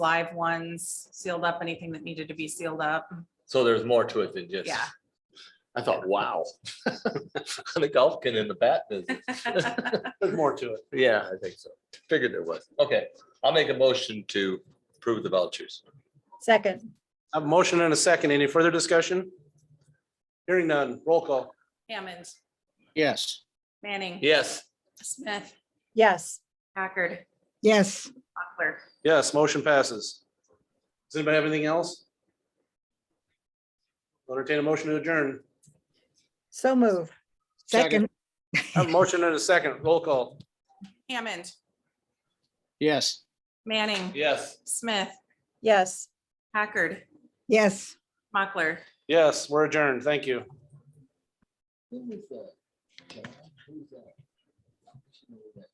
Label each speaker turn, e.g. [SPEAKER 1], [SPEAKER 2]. [SPEAKER 1] live ones, sealed up, anything that needed to be sealed up.
[SPEAKER 2] So there's more to it than just.
[SPEAKER 1] Yeah.
[SPEAKER 2] I thought, wow. The golf can in the bat business.
[SPEAKER 3] There's more to it.
[SPEAKER 2] Yeah, I think so. Figured there was. Okay, I'll make a motion to approve the vouchers.
[SPEAKER 4] Second,
[SPEAKER 3] A motion and a second. Any further discussion? Hearing none. Roll call.
[SPEAKER 1] Hammond,
[SPEAKER 5] yes,
[SPEAKER 1] Manning.
[SPEAKER 2] Yes,
[SPEAKER 1] Smith,
[SPEAKER 4] yes.
[SPEAKER 1] Packard,
[SPEAKER 6] yes.
[SPEAKER 1] Mochler.
[SPEAKER 3] Yes, motion passes. Does anybody have anything else? I'll Entertain a motion to adjourn.
[SPEAKER 4] So move.
[SPEAKER 6] Second,
[SPEAKER 5] Second.
[SPEAKER 3] A motion and a second. Roll call.
[SPEAKER 1] Hammond,
[SPEAKER 5] yes.
[SPEAKER 1] Manning,
[SPEAKER 3] Yes.
[SPEAKER 1] Smith,
[SPEAKER 4] Yes.
[SPEAKER 1] Packard,
[SPEAKER 6] yes.
[SPEAKER 1] Mochler.
[SPEAKER 3] Yes, we're adjourned. Thank you.
[SPEAKER 5] Who was that? Who was that?